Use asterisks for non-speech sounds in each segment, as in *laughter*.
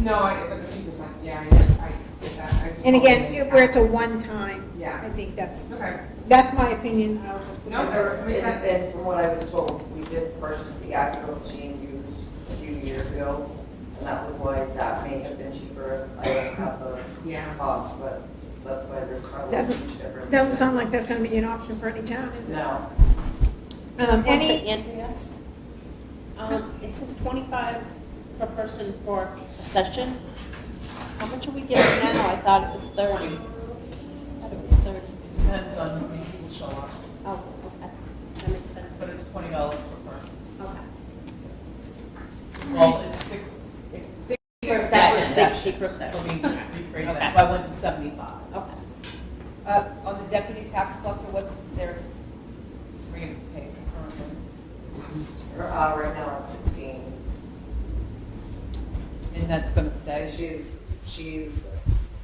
No, I, but the two percent, yeah, I, I get that. I just And again, wanted to- it- where it's a one-time, Yeah, I think that's, okay, that's my opinion. I'll just put No, that- there- And, and from what I was told, we did purchase the Acura Machine used a few years ago, and that was why that may have been cheaper. I don't have the yeah. cost, but that's why there's probably a That- huge difference. Doesn't sound like that's going to be an option for any town, is it? No, Um, Any, Andrea? Um, it says twenty-five per person for a session. How much are we getting now? I thought it was thirty. I thought it was thirty. Depends on how many people show up, Oh, okay. That makes sense. but it's twenty dollars per person. Okay. Well, it's six, it's six. Per sessions. session, sixty per Let session. me rephrase that, Okay. so I went to seventy-five. Okay. Uh, on the deputy tax collector, what's their rate of pay currently? Her, uh, right now it's sixteen. And that's gonna stay? And she's, she's,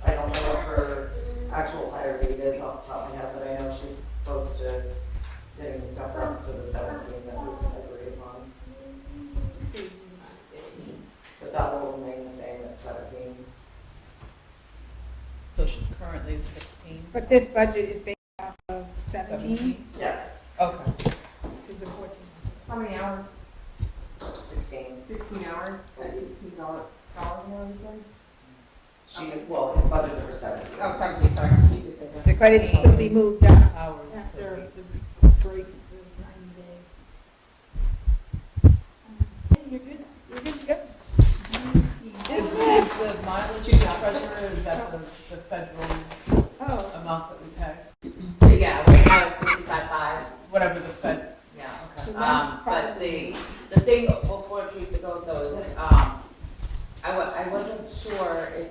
I don't know what her actual hire rate is off the top of my head, but I know she's close to getting stuff up to the seventeen that was agreed upon. But that will remain the same at seventeen. So she's currently is sixteen? but this budget is based off of 17 Yes, Okay. to the 14. How many hours? sixteen. Sixteen hours, at sixteen dollars, dollars an hour, you said? She, well, it's budgeted for seventeen. Oh, seventeen, sorry, you just said that. But it will be moved up Hours per after week. the grace of Um, You're good. nine days. Yep. Is is the mileage pressure, is that the, the federal Oh, amount that we pay? So yeah, right now it's sixty-five five, Whatever the fed, yeah. so that's Um, but probably, the, the thing before Teresa goes though is, um, I wa- I wasn't sure if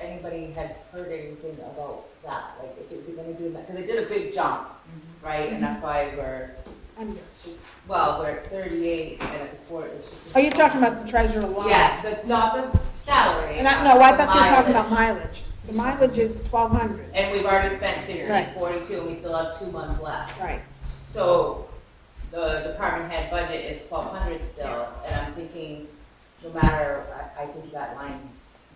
anybody had heard anything about that, like if it's gonna do that, because it did a big jump, Mm-hmm. right? And that's why we're, under. just- well, we're at thirty-eight and it's a four, it's just. Oh, you're talking about the treasurer line? Yeah, but not the salary. And I, no, I the thought you were talking mileage. about mileage. The mileage is 1,200, And we've already spent Right. fifteen, forty-two, and we still have two months left. right. So the department head budget is twelve hundred still, and I'm thinking, no matter, I, I think that line,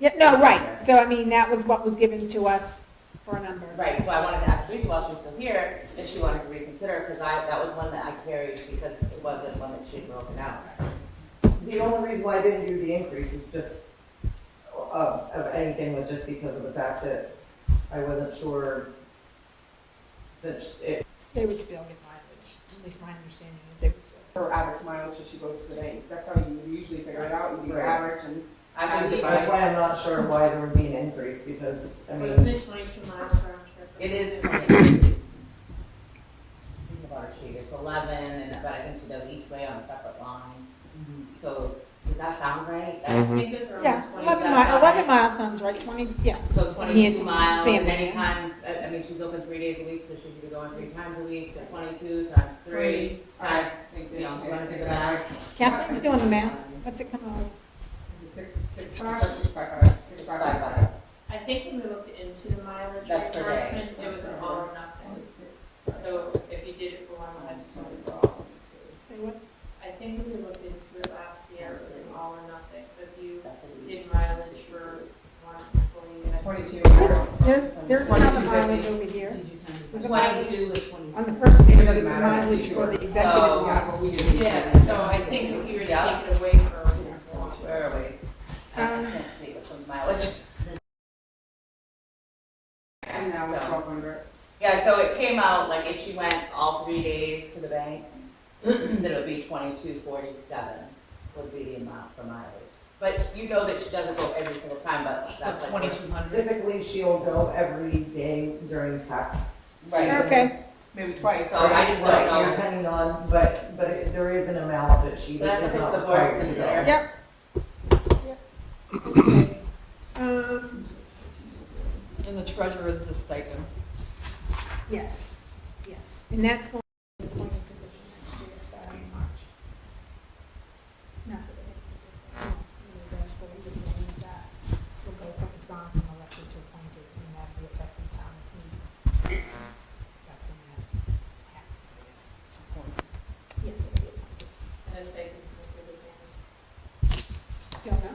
Yeah, no, right. So I mean, that was what was given to us for a number. right, so I wanted to ask Teresa while she was still here, if she wanted to reconsider, because I, that was one that I carried because it wasn't one that she had broken out. The only reason why I didn't do the increase is just, um, uh, of anything was just because of the fact that I wasn't sure since it, They would still get mileage, at least my understanding is they would still. Her average mileage that she goes to the bank, that's how you usually figure it out, you do your Right. average and. I And believe that's it- why I'm not sure why there would be an increase because, I mean, twenty-two miles round trip? it is an increase. Think about her sheet, it's eleven, and but I think she does each way on a separate line, Mm-hmm. so it's, does that sound right? That- Mm-hmm. think it's Yeah, is eleven that mi, not eleven right? miles sounds right, twenty, yeah. So Hand to twenty-two miles, Sam. and anytime, I, I mean, she's open three days a week, so she could be going three times a week, so twenty-two times three. I Times, think you they, know, I you wanna think do it's the like, math. Catherine's doing the math, what's it come out? is it six, six, five, or six, five, five? Six, five, five, five. I think when we looked into the mileage That's per day. reimbursement, it was an all or nothing. So if you did it for one, I just wanted for all. Say what? I think when we looked into it last year, it was an all or nothing. So if you That's a week. did mileage for one employee, I think Twenty-two. There, there's another mileage over here. There's a mileage, Twenty-two with on the twenty-six. first page, It doesn't there's a matter, it's mileage too for the short. executive one. So- Oh, Yeah, but we didn't. Yeah, so I think if you were to take it away for one, Where are we? Um, Let's see, which one's mileage? And now we're So- twelve hundred. Yeah, so it came out, like, if she went all three days to the bank, *clears throat* then it would be twenty-two forty-seven would be the amount for mileage. But you know that she doesn't go every single time, but that's that's like. twenty-two hundred. typically she'll go every day during tax. Right. season. Okay, Maybe twice. So I just don't Right, know. Depending on, but, but it- there is an amount that she So that's does what not the board require. consider. so- yep. Okay. Um, And the treasurer is a stipend. yes, yes, and that's going